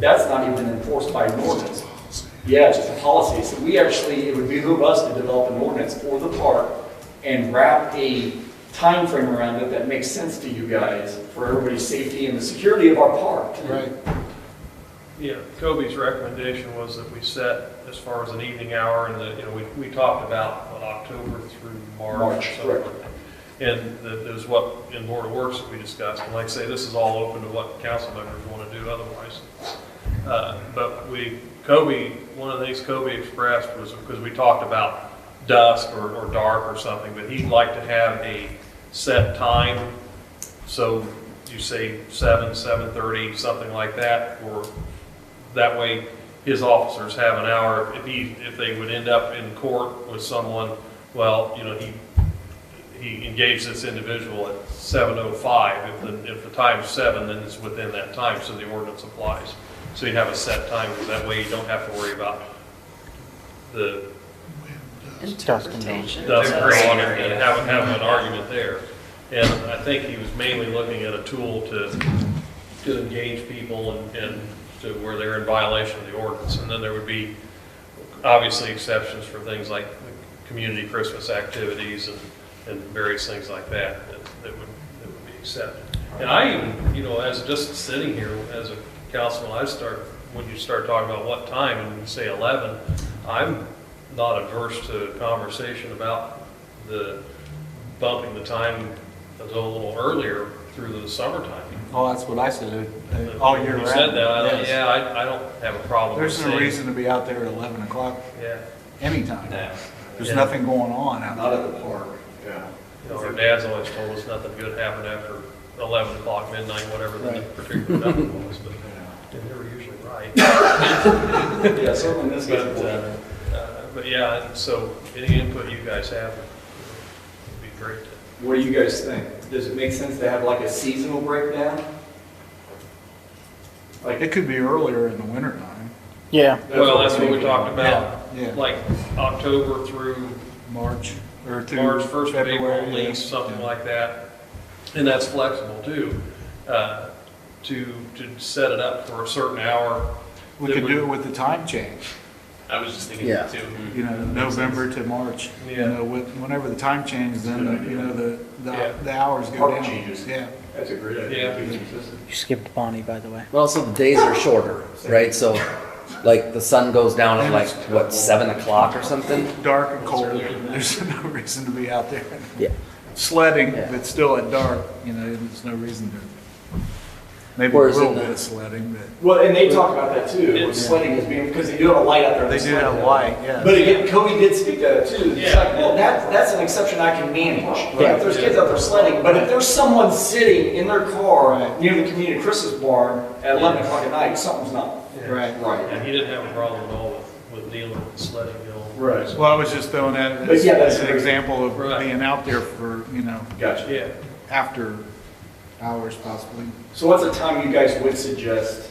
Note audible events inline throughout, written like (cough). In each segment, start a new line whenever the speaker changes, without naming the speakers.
that's not even enforced by an ordinance. Yeah, it's just a policy. So we actually, it would behoove us to develop an ordinance for the park and wrap a time frame around it that makes sense to you guys for everybody's safety and the security of our park.
Right.
Yeah, Kobe's recommendation was that we set as far as an evening hour, and that, you know, we, we talked about what, October through March.
March,
or something.
correct.
And that is what, in Board of Works that we discussed, and like I say, this is all open to what council members want to do otherwise. Uh, But we, Kobe, one of the things Kobe expressed was, because we talked about dusk or, or dark or something, but he'd like to have a set time. So you say seven, seven-thirty, something like that, or that way his officers have an hour. If he, if they would end up in court with someone, well, you know, he, he engaged this individual at seven oh five. If the, if the time's seven, then it's within that time, so the ordinance applies. So you have a set time, because that way you don't have to worry about the
Interpretation.
dusk law and having, having an argument there. And I think he was mainly looking at a tool to, to engage people and, and to where they're in violation of the ordinance. And then there would be obviously exceptions for things like community Christmas activities and, and various things like that, that that would, that would be accepted. And I even, you know, as just sitting here as a councilman, I start, when you start talking about what time and you say eleven, I'm not averse to a conversation about the bumping the time a little earlier through the summertime.
Oh, that's what I said, uh, all year round.
Oh, You said that, I thought,
Yes.
yeah, I, I don't have a problem with
There's no
saying.
reason to be out there at 11 o'clock
Yeah.
anytime.
No.
There's
Yeah.
nothing going on out
Not
there.
at the park. Yeah.
You know, our dad's always told us nothing good happened after eleven o'clock, midnight, whatever the
Right. (laughs)
particular time was, but they were usually right.
Yeah, certainly in this
But,
case.
uh, uh, but yeah, and so any input you guys have would be great.
What do you guys think? Does it make sense to have like a seasonal breakdown? Like,
It could be earlier in the wintertime,
Yeah,
Well, that's what we talked about,
yeah,
like October through
March or through
March first of April,
February,
at
yeah.
least, something
Yeah.
like that. And that's flexible too, uh, to, to set it up for a certain hour.
We
that
could
would-
do it with the time change,
I was just thinking
Yeah.
too.
you know, November to March. You
Mm-hmm. Yeah.
know, when- whenever the time changes, then, you know, the,
Yeah.
the the hours go
Park
down.
changes.
Yeah,
that's a great
idea.
idea.
you skipped Bonnie, by the way.
Well, so the days are shorter, right? So, like, the sun goes down at like, what, seven o'clock or something?
dark and cold, there's no reason to be out there.
Yeah.
Sledding,
Yeah.
but still at dark, you know, there's no reason to. Maybe a
Whereas
little
in the-
bit of sledding, but.
Well, and they talk about that too, with
It's-
sledding is being, because they do have a light out there.
They do have a light, yeah.
But again, Kobe did speak to that too. It's
Yeah.
like, well, that, that's an exception I can manage. But
Yeah.
If there's kids out there sledding, but if there's someone sitting in their car near the community Christmas barn at eleven o'clock at night, something's not
Right.
right.
And he didn't have a problem at all with, with dealing with sledding, you know.
Right.
Well, I was just throwing that
But
as
yeah, that's
as an
great.
example of
Right.
being out there for, you know,
Gotcha.
Yeah,
after hours possibly.
So what's a time you guys would suggest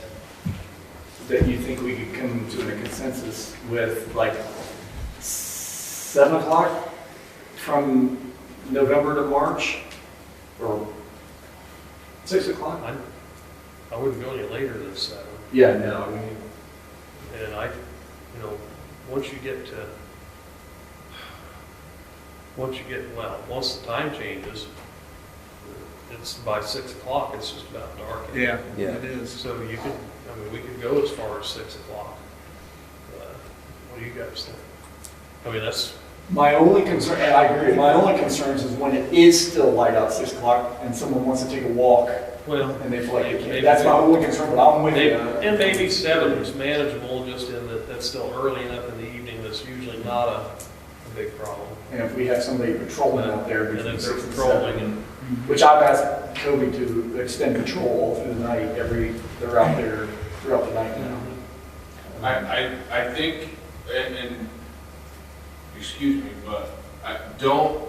that you think we could come to a consensus with, like, seven o'clock from November to March? Or six o'clock?
I, I wouldn't go any later than seven.
Yeah, no, I mean,
And I, you know, once you get to, once you get, well, once the time changes, it's by six o'clock, it's just about dark.
Yeah,
Yeah.
it is.
So you could, I mean, we could go as far as six o'clock. Uh, What do you guys think? I mean, that's,
my only concern, and I agree, my only concerns is when it is still light out, six o'clock, and someone wants to take a walk,
well.
and they feel like they
maybe
can't. That's my only concern, but I'm with
Maybe-
you.
And maybe seven is manageable, just in that, that's still early enough in the evening, that's usually not a a big problem.
And if we have somebody patrolling out there
And
between
if they're
six and seven.
patrolling and,
Which I've asked Kobe to extend control all through the night, every, they're out there throughout the night now.
I, I, I think, and, and, excuse me, but I, don't,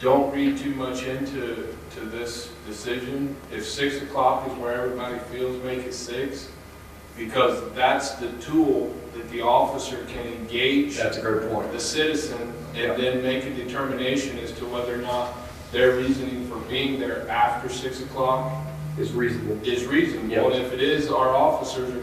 don't read too much into, to this decision. If six o'clock is where everybody feels, make it six, because that's the tool that the officer can engage
a great point.
the citizen and then make a determination as to whether or not their reasoning for being there after six o'clock
It's reasonable.
is reasonable. And if it is, our officers are